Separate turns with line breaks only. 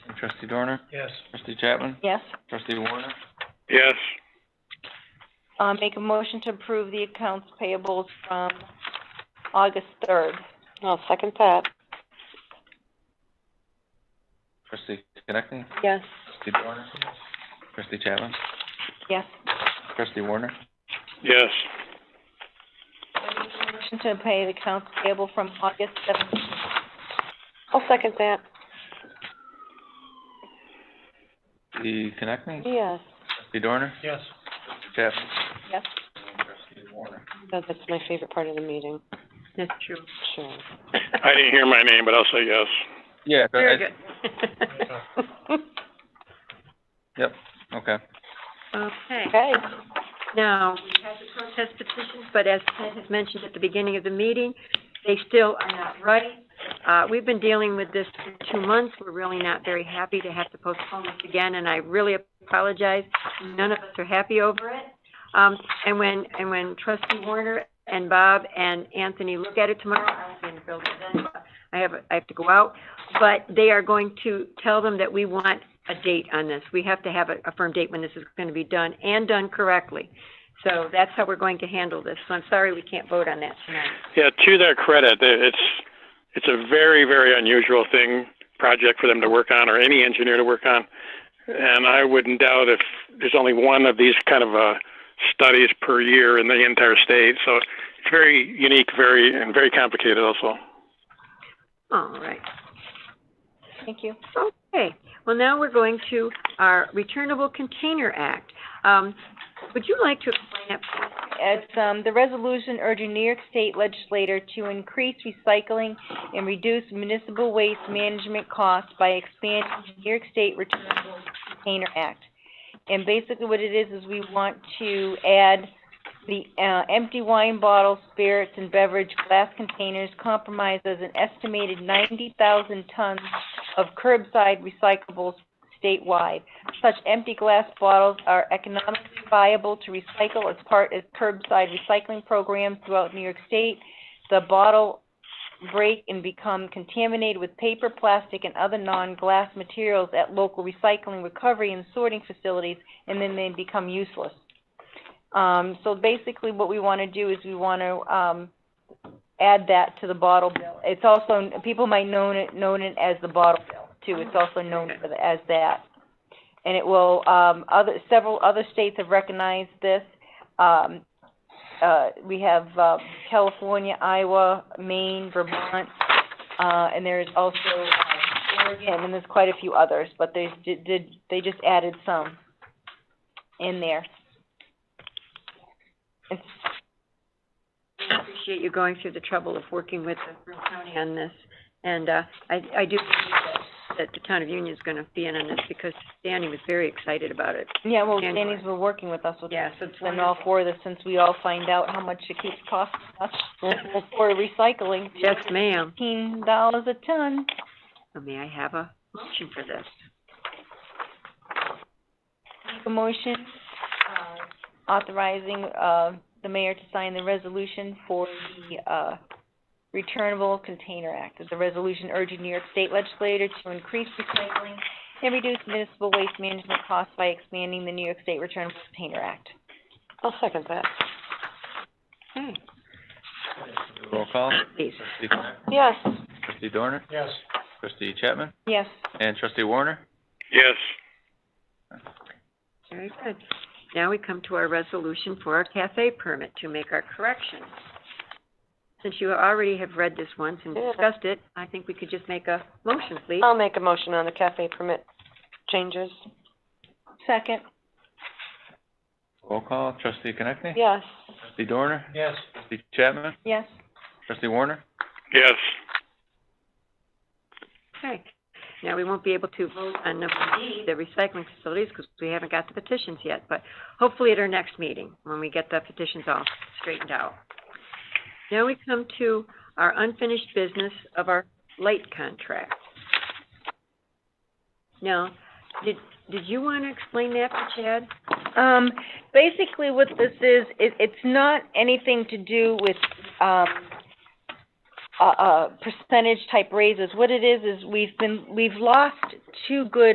Trustee Dorner?
Yes.
Trustee Chapman?
Yes.
Trustee Warner?
Yes.
Uh, make a motion to approve the accounts payables from August third. I'll second that.
Trustee Connectney?
Yes.
Trustee Dorner? Trustee Chapman?
Yes.
Trustee Warner?
Yes.
Motion to pay the accounts payable from August seventeenth. I'll second that.
Trustee Connectney?
Yes.
Trustee Dorner?
Yes.
Trustee Chapman?
Yes.
Trustee Warner?
That's my favorite part of the meeting. That's true. Sure.
I didn't hear my name, but I'll say yes.
Yeah. so I-
good.
Yep, okay.
Okay,
Okay.
now, we have the protest petitions, but as Ted has mentioned at the beginning of the meeting, they still are not ready. Uh, we've been dealing with this for two months, we're really not very happy to have to postpone this again, and I really apologize. None of us are happy over it. Um, and when, and when trustee Warner and Bob and Anthony look at it tomorrow, I'll be in the building then, I have, I have to go out, but they are going to tell them that we want a date on this. We have to have a, a firm date when this is gonna be done, and done correctly. So that's how we're going to handle this, so I'm sorry we can't vote on that tonight.
Yeah, to their credit, they- it's, it's a very, very unusual thing, project for them to work on, or any engineer to work on. And I wouldn't doubt if there's only one of these kind of, uh, studies per year in the entire state, so it's very unique, very, and very complicated also.
All right.
Thank you.
Okay, well, now we're going to our Returnable Container Act. Um, would you like to explain that, please?
It's, um, the resolution urging New York State legislator to increase recycling and reduce municipal waste management costs by expanding the New York State Returnable Container Act. And basically what it is, is we want to add the, uh, empty wine bottles, spirits, and beverage glass containers compromises an estimated ninety thousand tons of curbside recyclables statewide. Such empty glass bottles are economically viable to recycle as part of curbside recycling programs throughout New York State. The bottle break and become contaminated with paper, plastic, and other non-glass materials at local recycling, recovery, and sorting facilities, and then they become useless. Um, so basically what we want to do is we want to, um, add that to the bottle bill. It's also, people might known it, known it as the bottle bill too. It's also known for the- as that and it will, um, other, several other states have recognized this. Um, uh, we have, uh, California, Iowa, Maine, Vermont, uh, and there's also, uh, Oregon, and there's quite a few others, but they did, did, they just added some in there. It's,
I appreciate you going through the trouble of working with the Broome County on this. And, uh, I, I do believe that, that the town of Union's gonna be in on this because Danny was very excited about it.
yeah, well,
January.
Danny's been working with us with,
Yeah, so it's
and all
wonderful.
four of this, since we all find out how much it keeps costing us for recycling,
Yes, ma'am.
fifteen dollars a ton.
So may I have a motion for this?
Make a motion, uh, authorizing, uh, the mayor to sign the resolution for the, uh, Returnable Container Act. It's a resolution urging New York State legislator to increase recycling and reduce municipal waste management costs by expanding the New York State Returnable Container Act.
I'll second that. Okay,
Roll call.
please.
Trustee Connectney?
Yes.
Trustee Dorner?
Yes.
Trustee Chapman?
Yes.
And Trustee Warner?
Yes.
Very good. Now we come to our resolution for our cafe permit to make our corrections. Since you already have read this once and
Yeah.
discussed it, I think we could just make a motion, please.
make a motion on the cafe permit changes. Second.
Roll call. Trustee Connectney?
Yes.
Trustee Dorner?
Yes.
Trustee Chapman?
Yes.
Trustee Warner?
Yes.
Okay. Now, we won't be able to vote on number D, the recycling facilities, because we haven't got the petitions yet, but hopefully at our next meeting, when we get the petitions all straightened out. Now we come to our unfinished business of our light contract. Now, did, did you want to explain that to Chad?
Um, basically what this is, it, it's not anything to do with, um, uh, uh, percentage type raises. What it is, is we've been, we've lost two good